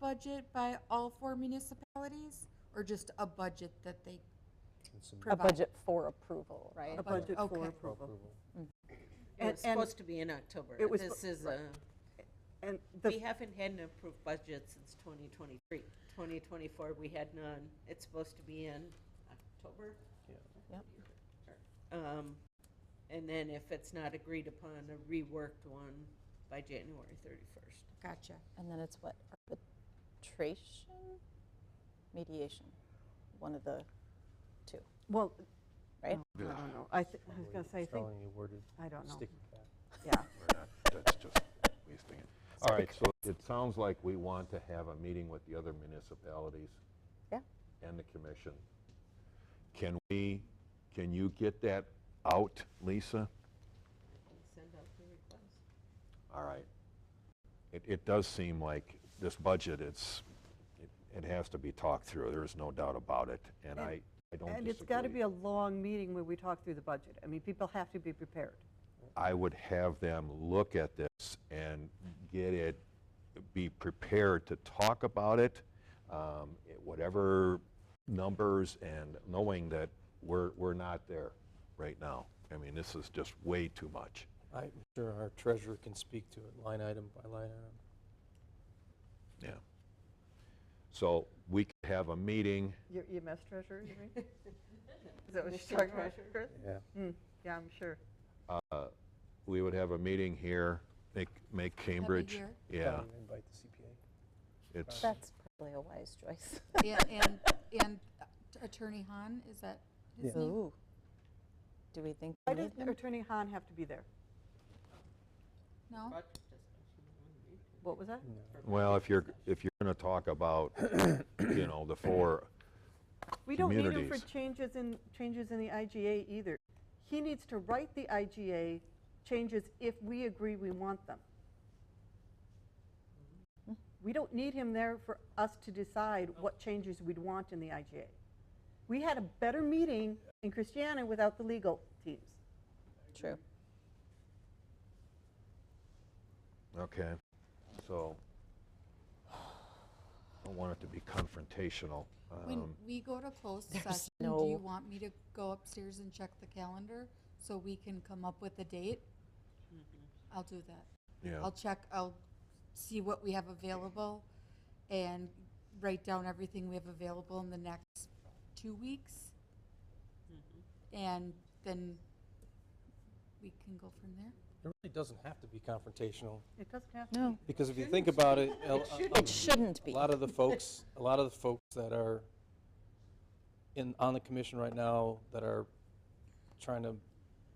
budget by all four municipalities, or just a budget that they It's in- A provide? budget for approval, right? A budget for Okay. for approval. approval. It was And- and- supposed to be in October. It was This spo- is right. a, And we the, haven't had an approved budget since 2023. 2024, we had none. It's supposed to be in October. Yeah. Yep. Um, And then if it's not agreed upon, a reworked one by January 31st. Gotcha. And then it's what, arbitration? Mediation, one of the, well, Right? no, I don't know. I, thi- I was going to say, I think, Strongly worded, I don't know. stick with that. Yeah. We're not, that's just wasting it. All right, so it sounds like we want to have a meeting with the other municipalities. Yeah. And the commission. Can we, can you get that out, Lisa? Send out the request. All right. It, it does seem like this budget, it's, it- it has to be talked through, there is no doubt about it, and I, I don't disagree. And it's got to be a long meeting where we talk through the budget. I mean, people have to be prepared. I would have them look at this and get it, be prepared to talk about it, um, it- whatever numbers, and knowing that we're, we're not there right now. I mean, this is just way too much. I'm sure our treasurer can speak to it line item by line item. Yeah. So we could have a meeting. Your EMS treasurer, you mean? Is that what Michelle you're talking about, treasurer? Chris? Yeah. Mm, Yeah, I'm sure. uh, We would have a meeting here, make, make Cambridge. here? Yeah, Probably Invite the CPA. it's, that's probably a wise choice. And, and, and Attorney Hahn, is that his name? Ooh. Do we think Why we need did him? Attorney Hahn have to be there? No? Budget discussion. What was that? well, if you're, if you're going to talk about, you know, the four We don't need him for Communities. changes in, changes in the IGA either. He needs to write the IGA changes if we agree we want them. We don't need him there for us to decide what changes we'd want in the IGA. We had a better meeting in Christiana without the legal teams. True. Okay, so, I don't want it to be confrontational. When Um, we go to closed session, do no- you want me to go upstairs and check the calendar so we can come up with a date? Mm-hmm. I'll do that. Yeah, I'll check, I'll see what we have available and write down everything we have available in the next two weeks. And then we can go from there. It really doesn't have to be confrontational, It doesn't have to. No, because if you think about it, uh, a- a- it shouldn't a be. lot of the folks, a lot of the folks that are in, on the commission right now that are trying to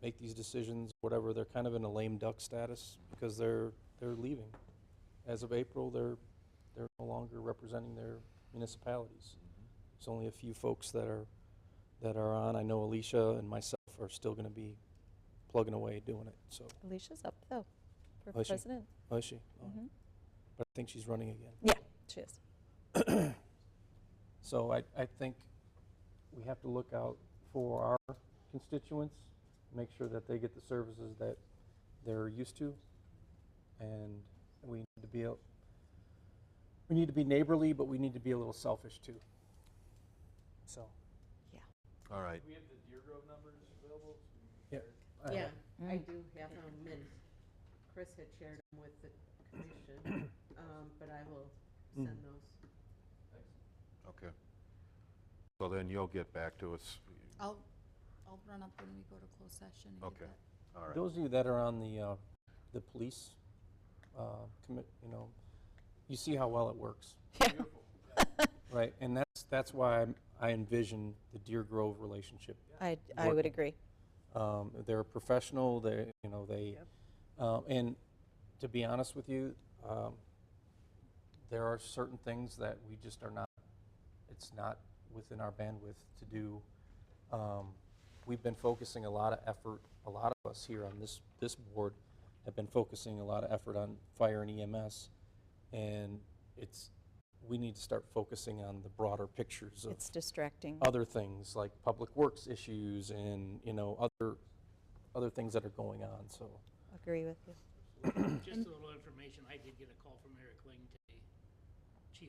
make these decisions, whatever, they're kind of in a lame duck status because they're, they're leaving. As of April, they're, they're no longer representing their municipalities. There's only a few folks that are, that are on. I know Alicia and myself are still going to be plugging away doing it, so. Alicia's up, though, for Oh, is she? president. Oh, is she? Oh. Mhm. But I think she's running again. She is. So I, I think we have to look out for our constituents, make sure that they get the services that they're used to. And we need to be, a- we need to be neighborly, but we need to be a little selfish too. So. all right. I don't Yeah, know. I Mm. do have them, and Chris had shared them with the commission, um, but I will send those. Okay. So then you'll get back to us, I'll, I'll run up when we go to closed session and Okay. get that. all right. Those of you that are on the, uh, the police, uh, commit, you know, you see how well it works. Right, and that's, that's why I'm- I envision the Deer Grove relationship I, I Work- would agree. Um, they're professional. They, you know, they, um, and to be honest with you, um, there are certain things that we just are not. It's not within our bandwidth to do. Um, we've been focusing a lot of effort. A lot of us here on this this board have been focusing a lot of effort on fire and EMS, and it's we need to start focusing on the broader pictures of It's distracting. other things like public works issues and you know other other things that are going on so Agree with you. Just a little information, I did get a call from Eric Langton